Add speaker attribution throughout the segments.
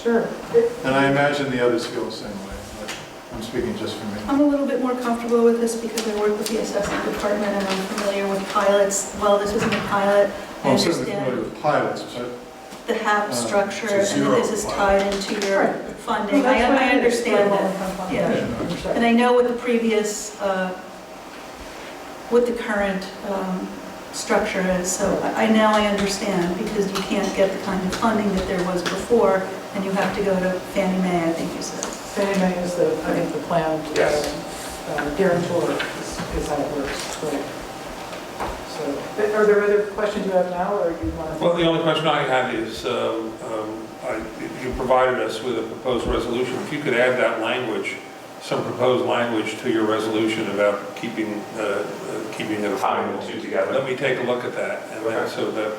Speaker 1: Sure.
Speaker 2: And I imagine the others feel the same way, but I'm speaking just for me.
Speaker 1: I'm a little bit more comfortable with this because I work with the assessment department and I'm familiar with pilots. Well, this isn't a pilot. I
Speaker 2: Well, I'm certainly familiar
Speaker 1: understand
Speaker 2: with pilots, but
Speaker 1: the HAB
Speaker 2: Uh,
Speaker 1: structure and
Speaker 2: it's a
Speaker 1: that this is
Speaker 2: zero
Speaker 1: tied into your funding. I I understand that. Yeah. And I know what the previous, uh, what the current um, structure is, so I I now I understand, because you can't get the kind of funding that there was before, and you have to go to Fannie Mae, I think you said.
Speaker 3: Fannie Mae is the, I think, the planned uh, guarantor is is how it works, correct? So, are there other questions you have now, or you want to?
Speaker 4: Well, the only question I had is, um, um, I- you provided us with a proposed resolution. If you could add that language, some proposed language to your resolution about keeping, uh, uh, keeping it
Speaker 5: Tying
Speaker 4: affordable.
Speaker 5: the two together.
Speaker 4: Let me take a look at that, and then
Speaker 5: Okay.
Speaker 4: so that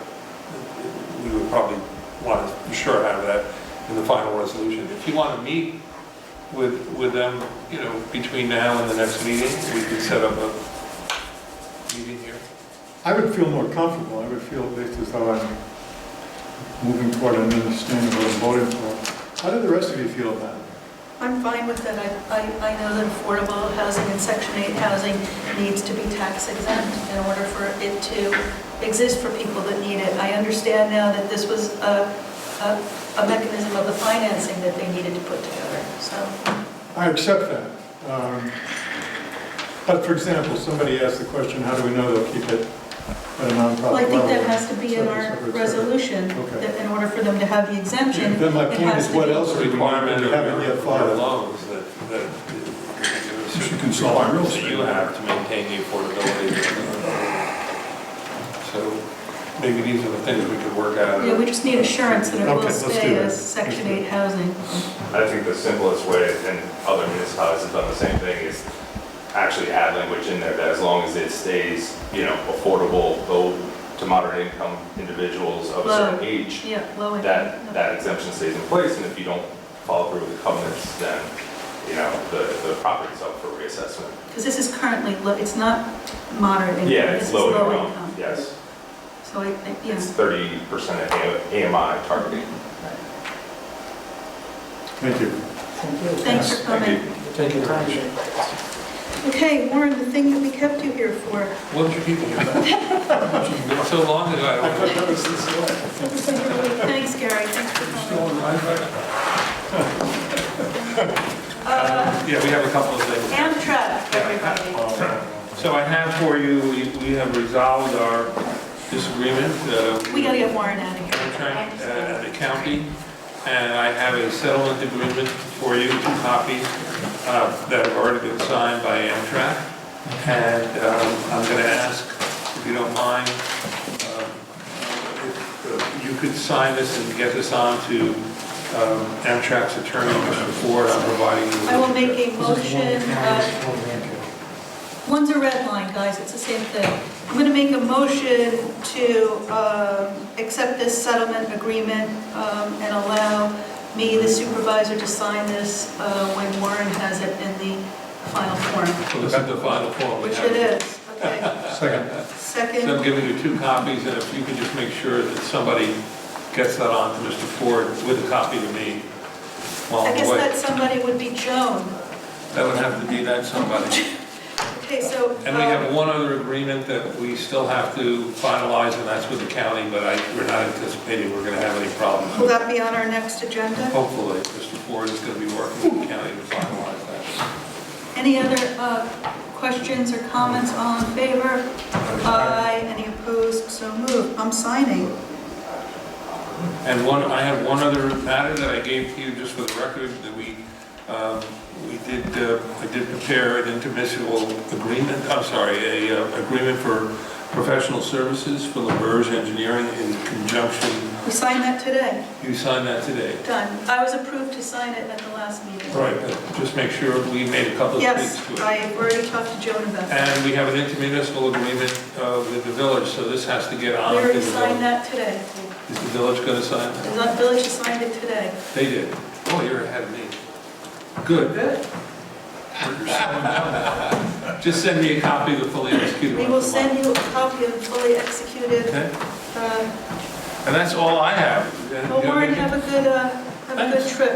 Speaker 4: we would probably want to, for sure, have that in the final resolution. If you want to meet with, with them, you know, between now and the next meeting, we could set up a meeting here.
Speaker 2: I would feel more comfortable, I would feel at least as though I'm moving toward an understanding of what I'm voting for. How do the rest of you feel about it?
Speaker 1: I'm fine with that, I, I I know that affordable housing and Section 8 housing needs to be tax exempt in order for it to exist for people that need it. I understand now that this was a, a- a mechanism of the financing that they needed to put together, so.
Speaker 2: I accept that. Um, But for example, somebody asked the question, how do we know they'll keep it at a nonprofit level?
Speaker 1: Well, I think that has to be in our
Speaker 2: Separate, separate, separate.
Speaker 1: resolution,
Speaker 2: Okay.
Speaker 1: that in order for them to have the exemption.
Speaker 2: Then my
Speaker 1: it
Speaker 2: point
Speaker 1: has
Speaker 2: is,
Speaker 1: to
Speaker 2: what
Speaker 1: be-
Speaker 2: else do we
Speaker 4: requirement of
Speaker 2: haven't yet thought
Speaker 4: your
Speaker 2: of?
Speaker 4: loans that, that.
Speaker 6: You can sell on real estate.
Speaker 4: That you have to maintain the affordability. So maybe these are the things we could work out.
Speaker 1: Yeah, we just need assurance that it
Speaker 2: Okay,
Speaker 1: will
Speaker 2: let's do
Speaker 1: stay
Speaker 2: that.
Speaker 1: as Section
Speaker 2: Let's do
Speaker 1: 8 housing.
Speaker 5: I think the simplest way, and other municipalities have done the same thing, is actually add language in there that as long as it stays, you know, affordable, low to moderate income individuals of a certain
Speaker 1: Low.
Speaker 5: age,
Speaker 1: Yeah, low income.
Speaker 5: that, that exemption stays in place, and if you don't follow through with the covenants, then, you know, the, the property's up for reassessment.
Speaker 1: Because this is currently, low. it's not moderate income.
Speaker 5: Yeah,
Speaker 1: this
Speaker 5: it's
Speaker 1: is
Speaker 5: low income, yes.
Speaker 1: So I, I- yeah,
Speaker 5: It's thirty percent of AMI targeting.
Speaker 2: Thank you.
Speaker 3: Thank you.
Speaker 1: thanks for
Speaker 5: Thank you.
Speaker 1: coming.
Speaker 3: Thank you.
Speaker 1: Okay, Warren, the thing that we kept you here for,
Speaker 4: What did you keep here? It's so long ago. I
Speaker 2: I
Speaker 4: don't-
Speaker 2: thought that was this one.
Speaker 1: thanks, Gary, thanks for coming.
Speaker 4: Uh, Yeah, we have a couple of things.
Speaker 1: Amtrak, everybody.
Speaker 4: So I have for you, we we have resolved our disagreement. uh,
Speaker 1: We gotta get Warren out of here.
Speaker 4: contract uh, at the county, and I have a settlement agreement for you, two copies, uh, that have already been signed by Amtrak. And um, I'm going to ask, if you don't mind, um, if uh, you could sign this and get this on to um, Amtrak's attorney, Mr. Ford, I'm providing you. with-
Speaker 1: I will make a motion, uh, One's a red line, guys, it's the same thing. I'm going to make a motion to um, accept this settlement agreement um, and allow me, the supervisor, to sign this uh, when Warren has it in the final form,
Speaker 4: So This is the final form we
Speaker 1: which
Speaker 4: have.
Speaker 1: it is. Okay,
Speaker 2: Second.
Speaker 4: So I'm
Speaker 1: second,
Speaker 4: giving you two copies, and if you could just make sure that somebody gets that on to Mr. Ford with a copy to me while
Speaker 1: I
Speaker 4: I'm
Speaker 1: guess
Speaker 4: away.
Speaker 1: that somebody would be Joan.
Speaker 4: That would have to be that somebody.
Speaker 1: Okay, so.
Speaker 4: And we
Speaker 1: uh,
Speaker 4: have one other agreement that we still have to finalize, and that's with the county, but I, we're not anticipating we're gonna have any
Speaker 1: um, Will
Speaker 4: problems.
Speaker 1: that be on our next agenda?
Speaker 4: Hopefully, Mr. Ford is gonna be working with the county to finalize that.
Speaker 1: Any other uh, questions or comments? All in favor? Aye. Any opposed? So moved. I'm signing.
Speaker 4: And one, I have one other matter that I gave to you, just for the record, that we, um, we did, uh, I did prepare an intermunicipal agreement, I'm sorry, a uh, agreement for professional services for LaBerge Engineering in conjunction,
Speaker 1: We signed that today,
Speaker 4: you signed that today.
Speaker 1: done. I was approved to sign it at the last meeting.
Speaker 4: Right, but just make sure we made a couple of tweaks
Speaker 1: Yes,
Speaker 4: to it.
Speaker 1: I already talked to Joan about that.
Speaker 4: And we have an intermunicipal agreement uh, with the village, so this has to get on.
Speaker 1: We
Speaker 4: to
Speaker 1: already
Speaker 4: the
Speaker 1: signed
Speaker 4: village.
Speaker 1: that today.
Speaker 4: Is the village going to sign
Speaker 1: The
Speaker 4: that?
Speaker 1: village signed it today.
Speaker 4: They did. Oh, you're ahead of me. Good. You're slowing down now. Just send me a copy of the fully executed
Speaker 1: We
Speaker 4: one.
Speaker 1: will
Speaker 4: tomorrow.
Speaker 1: send you a copy of the fully executed.
Speaker 4: Okay?
Speaker 1: uh,
Speaker 4: And that's all I have. And,
Speaker 1: Well,
Speaker 4: you know,
Speaker 1: Warren,
Speaker 4: we can-
Speaker 1: have a good, uh, Have a good trip.